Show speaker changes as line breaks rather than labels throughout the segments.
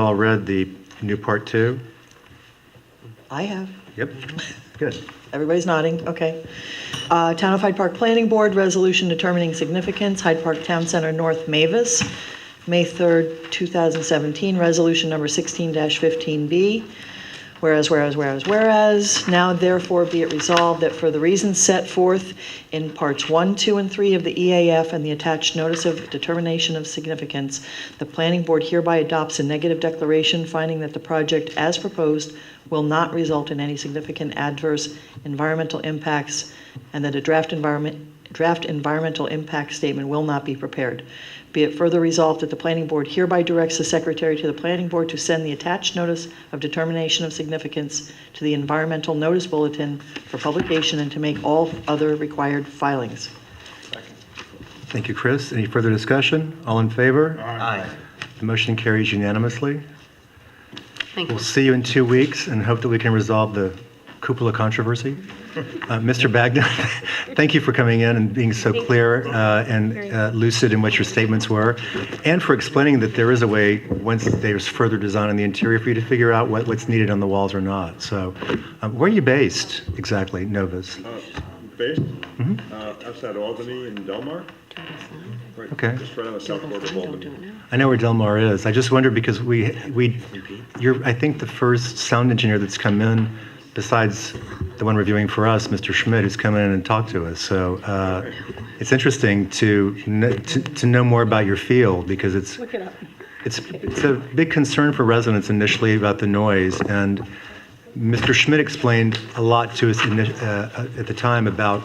all read the new part two?
I have.
Yep, good.
Everybody's nodding, okay. Uh, Town of Hyde Park Planning Board, resolution determining significance, Hyde Park Town Center North Mavis, May 3rd, 2017, resolution number 16-15B. Whereas, whereas, whereas, whereas, now therefore be it resolved that for the reasons set forth in parts 1, 2, and 3 of the EAF and the attached notice of determination of significance, the planning board hereby adopts a negative declaration finding that the project as proposed will not result in any significant adverse environmental impacts and that a draft environment, draft environmental impact statement will not be prepared. Be it further resolved that the planning board hereby directs the secretary to the planning board to send the attached notice of determination of significance to the environmental notice bulletin for publication and to make all other required filings.
Thank you, Chris. Any further discussion? All in favor?
Aye.
The motion carries unanimously.
Thank you.
We'll see you in two weeks and hope that we can resolve the cupola controversy. Uh, Mr. Bagdon, thank you for coming in and being so clear uh, and uh, lucid in what your statements were, and for explaining that there is a way, once there's further design in the interior, for you to figure out what- what's needed on the walls or not. So uh, where are you based exactly, Novus?
Based, uh, outside Albany in Delmar. Right,
Okay.
Just right on the south border of
Don't
Albany.
do it now.
I know where Del Mar is. I just wondered because we, we, you're, I think the first sound engineer that's come in, besides the one reviewing for us, Mr. Schmidt, who's come in and talked to us. So uh, it's interesting to, kn- to to know more about your field because it's, it's, it's a big concern for residents initially about the noise, and Mr. Schmidt explained a lot to us ini- uh, at the time about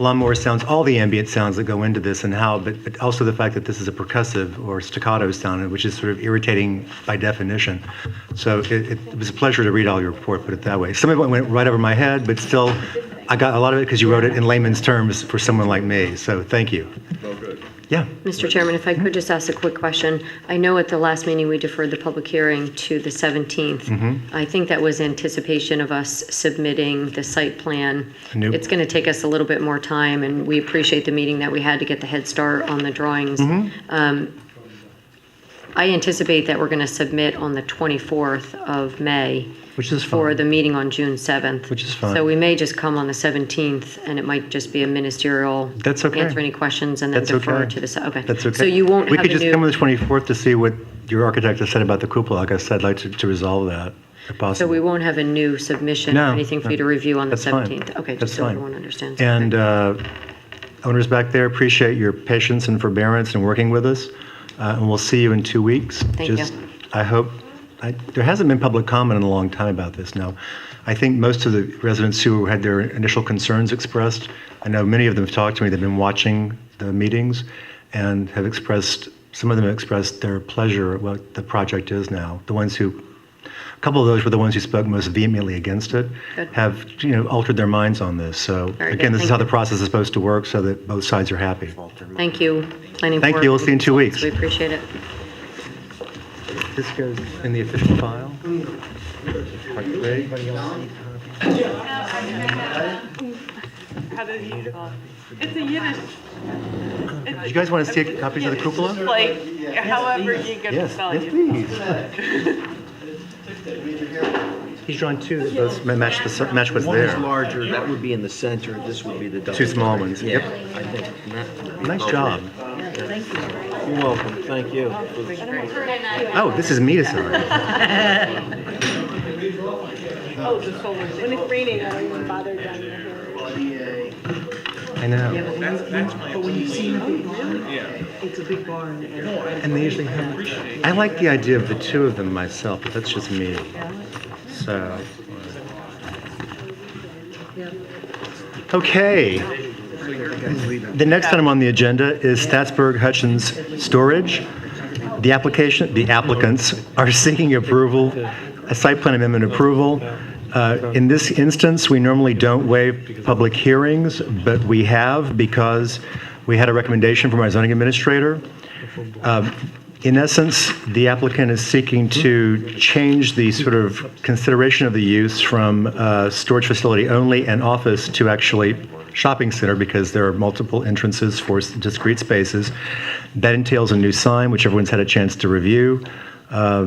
lawnmower sounds, all the ambient sounds that go into this and how, but but also the fact that this is a percussive or staccato sound, which is sort of irritating by definition. So it it was a pleasure to read all your report, put it that way. Some of it went right over my head, but still, I got a lot of it because you wrote it in layman's terms for someone like me, so thank you.
Oh, good.
Yeah,
Mr. Chairman, if I could just ask a quick question. I know at the last meeting, we deferred the public hearing to the 17th. I think that was anticipation of us submitting the site plan.
Nope.
It's going to take us a little bit more time, and we appreciate the meeting that we had to get the head start on the drawings. Um, I anticipate that we're going to submit on the 24th of May
which is
for the
fine.
meeting on June 7th.
Which is fine.
So we may just come on the 17th, and it might just be a ministerial.
That's okay.
Answer any questions and then
That's
defer
okay.
to the, se- okay.
That's okay.
So you won't
We
have a
could just come on
new,
the 24th to see what your architect has said about the cupola. Like I said, I'd like to- to resolve that if
so we
possible.
won't have a new submission
No,
or anything for you to
no.
review on the
That's fine.
17th? Okay,
That's
just so
fine.
everyone understands.
And
Okay.
uh, owners back there, appreciate your patience and forbearance in working with us. Uh, And we'll see you in two weeks.
Thank you.
Just, I hope, I- there hasn't been public comment in a long time about this now. I think most of the residents who had their initial concerns expressed, I know many of them have talked to me, they've been watching the meetings and have expressed, some of them have expressed their pleasure at what the project is now. The ones who a couple of those were the ones who spoke most vehemently against it,
Good.
have, you know, altered their minds on this. So
Very good.
again, this is how
Thank
the process is supposed to work, so that both sides are happy.
Thank you, planning board.
Thank you, we'll see you in two weeks.
We appreciate it.
This goes in the official file?
How did he develop? It's a Yiddish.
Do you guys want to see copies of the cupola?
Like, however you can
Yes,
spell
yes,
it.
please. He's drawn two that both ma- match the, s- match what's
One is
there.
larger, that would be in the center, this would be the double.
Two small ones,
Yeah,
yep.
I think. and that would be
Nice
appropriate.
job.
You're welcome, thank you.
Oh, this is me to sign.
Oh, the solar. When it's raining, I don't even bother down there.
I know. That's, that's my. But when you see, yeah. It's a big barn. And they usually have, I like the idea of the two of them myself, but that's just me. So. uh, Okay. The next item on the agenda is Statsburg Hutchins Storage. The application, the applicants are seeking approval, a site plan amendment approval. Uh, In this instance, we normally don't waive public hearings, but we have because we had a recommendation from our zoning administrator. Um, In essence, the applicant is seeking to change the sort of consideration of the use from uh, storage facility only and office to actually shopping center because there are multiple entrances for s- discrete spaces. That entails a new sign, which everyone's had a chance to review. Uh,